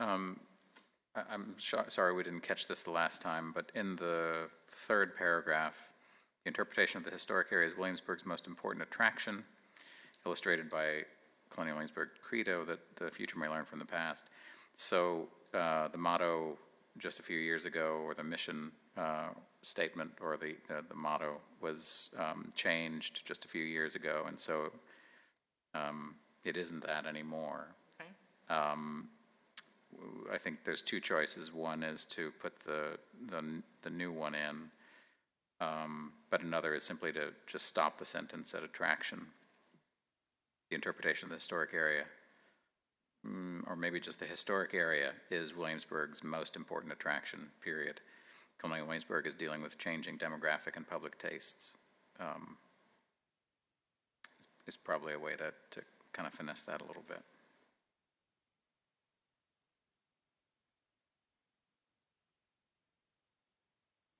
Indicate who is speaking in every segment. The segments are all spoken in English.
Speaker 1: Um, I- I'm sho- sorry we didn't catch this the last time, but in the third paragraph, the interpretation of the historic area as Williamsburg's most important attraction, illustrated by Colonial Williamsburg credo that the future may learn from the past. So uh, the motto just a few years ago, or the mission uh, statement, or the, uh, the motto was um, changed just a few years ago, and so um, it isn't that anymore. Um,
Speaker 2: Okay.
Speaker 1: I think there's two choices. One is to put the, the, n- the new one in, um, but another is simply to just stop the sentence at attraction. The interpretation of the historic area, mm, or maybe just the historic area, is Williamsburg's most important attraction, period. Colonial Williamsburg is dealing with changing demographic and public tastes. Um, it's- It's probably a way to, to kind of finesse that a little bit.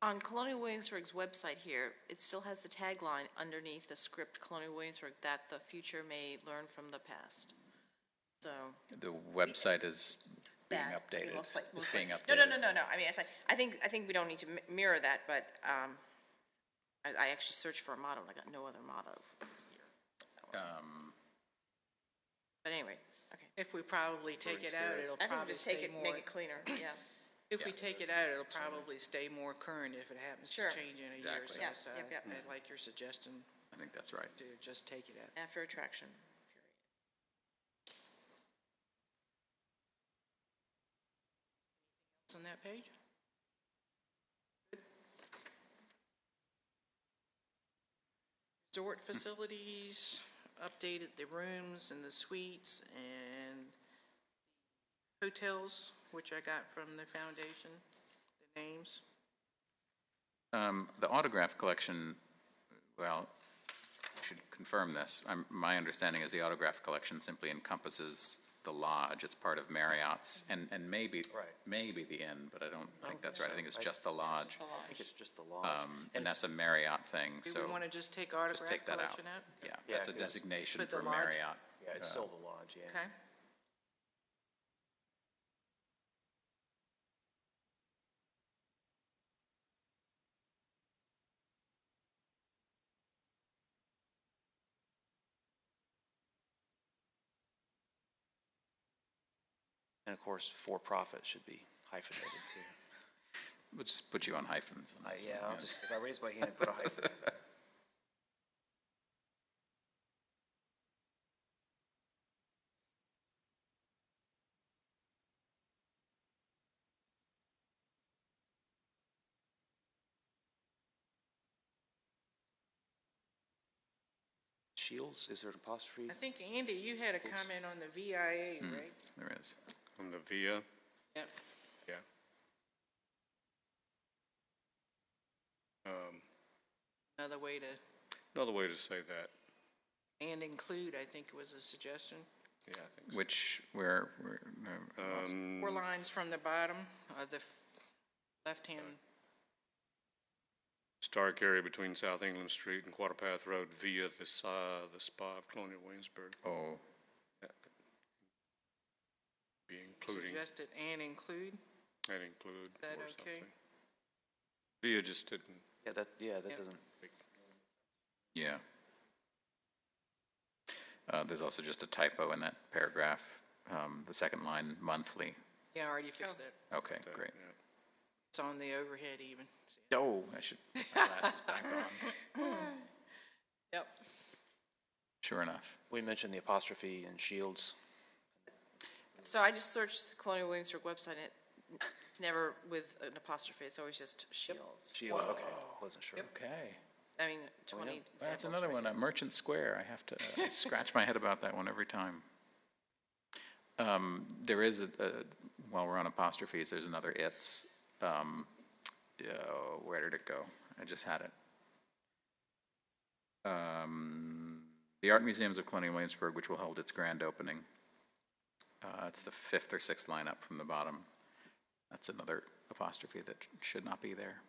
Speaker 2: On Colonial Williamsburg's website here, it still has the tagline underneath the script Colonial Williamsburg, that the future may learn from the past. So.
Speaker 1: The website is being
Speaker 2: that, it
Speaker 1: updated.
Speaker 2: looks like-
Speaker 1: It's
Speaker 2: looks
Speaker 1: being
Speaker 2: like-
Speaker 1: updated.
Speaker 2: No, no, no, no, no, I mean, I said, I think, I think we don't need to mi- mirror that, but, um, I, I actually searched for a motto, and I got no other motto.
Speaker 1: Um,
Speaker 2: But anyway, okay.
Speaker 3: If we probably take it out, it'll
Speaker 2: I think we
Speaker 3: probably
Speaker 2: just take
Speaker 3: stay
Speaker 2: it,
Speaker 3: more,
Speaker 2: make it cleaner, yeah.
Speaker 3: if we take it out, it'll probably stay more current if it happens to
Speaker 2: Sure.
Speaker 3: change in a year or
Speaker 1: Exactly.
Speaker 3: so.
Speaker 2: Yeah,
Speaker 3: So
Speaker 2: yep, yep.
Speaker 3: I like your suggestion
Speaker 1: I think that's right.
Speaker 3: to just take it out.
Speaker 2: After attraction.
Speaker 3: It's on that page? Resort facilities, updated the rooms and the suites and hotels, which I got from the foundation, the names.
Speaker 1: Um, The autograph collection, well, I should confirm this. I'm- My understanding is the autograph collection simply encompasses the lodge. It's part of Marriott's and, and maybe,
Speaker 4: Right.
Speaker 1: maybe the inn, but I don't think
Speaker 4: think
Speaker 1: that's right. I
Speaker 4: so.
Speaker 1: think it's
Speaker 4: I-
Speaker 1: just the lodge.
Speaker 4: I think it's just the lodge.
Speaker 1: Um, And that's a Marriott thing,
Speaker 3: Do
Speaker 1: so
Speaker 3: we want to just take
Speaker 1: just
Speaker 3: autograph
Speaker 1: take that out.
Speaker 3: collection out?
Speaker 1: Yeah,
Speaker 4: Yeah,
Speaker 1: that's a
Speaker 4: 'cause it's-
Speaker 1: designation
Speaker 3: But the
Speaker 1: for
Speaker 3: lodge-
Speaker 1: Marriott.
Speaker 4: Yeah, it's still the lodge, yeah.
Speaker 3: Okay.
Speaker 4: And of course, for-profit should be hyphenated too.
Speaker 1: We'll just put you on hyphens. on
Speaker 4: I,
Speaker 1: this
Speaker 4: Uh, yeah,
Speaker 1: one,
Speaker 4: I'll just, if I raise my hand, put a hyphen in. Shields, is there an apostrophe?
Speaker 3: I think, Andy, you had a comment on the VIA,
Speaker 5: Hmm.
Speaker 3: right?
Speaker 1: There is.
Speaker 5: On the VIA,
Speaker 3: Yep.
Speaker 5: yeah. Um,
Speaker 3: Another way to,
Speaker 5: Another way to say that,
Speaker 3: and include, I think was a suggestion.
Speaker 5: yeah, I think so.
Speaker 1: Which, where, where, no, I
Speaker 5: Um,
Speaker 1: lost-
Speaker 5: Hmm.
Speaker 3: Four lines from the bottom of the f- left-hand,
Speaker 5: Stark area between South England Street and Quarter Path Road via the si- the spa of Colonial Williamsburg.
Speaker 1: oh,
Speaker 5: That could Be including,
Speaker 3: suggested and include.
Speaker 5: that include
Speaker 3: Is that
Speaker 5: or
Speaker 3: okay?
Speaker 5: something. VIA just didn't,
Speaker 4: Yeah, that, yeah,
Speaker 3: Yeah.
Speaker 4: that doesn't,
Speaker 1: Yeah. Uh, There's also just a typo in that paragraph, um, the second line, monthly.
Speaker 3: Yeah, I already fixed that.
Speaker 1: Okay, great.
Speaker 5: yeah.
Speaker 3: It's on the overhead even.
Speaker 1: Oh, I should, my glasses back on.
Speaker 3: Yep.
Speaker 1: Sure enough.
Speaker 4: we mentioned the apostrophe and Shields.
Speaker 2: So I just searched Colonial Williamsburg website, and it- it's never with an apostrophe, it's always just Shields.
Speaker 4: Shields, okay, wasn't sure.
Speaker 1: Okay.
Speaker 2: I
Speaker 5: Oh,
Speaker 2: mean, twenty
Speaker 1: That's
Speaker 2: examples.
Speaker 1: another one, uh, Merchant Square. I have to I scratch my head about that one every time. Um, There is, a- a- while we're on apostrophes, there's another it's. Um, oh, Where did it go? I just had it. Um, The Art Museums of Colonial Williamsburg, which will hold its grand opening. Uh, It's the fifth or sixth line up from the bottom. That's another apostrophe that should not be there.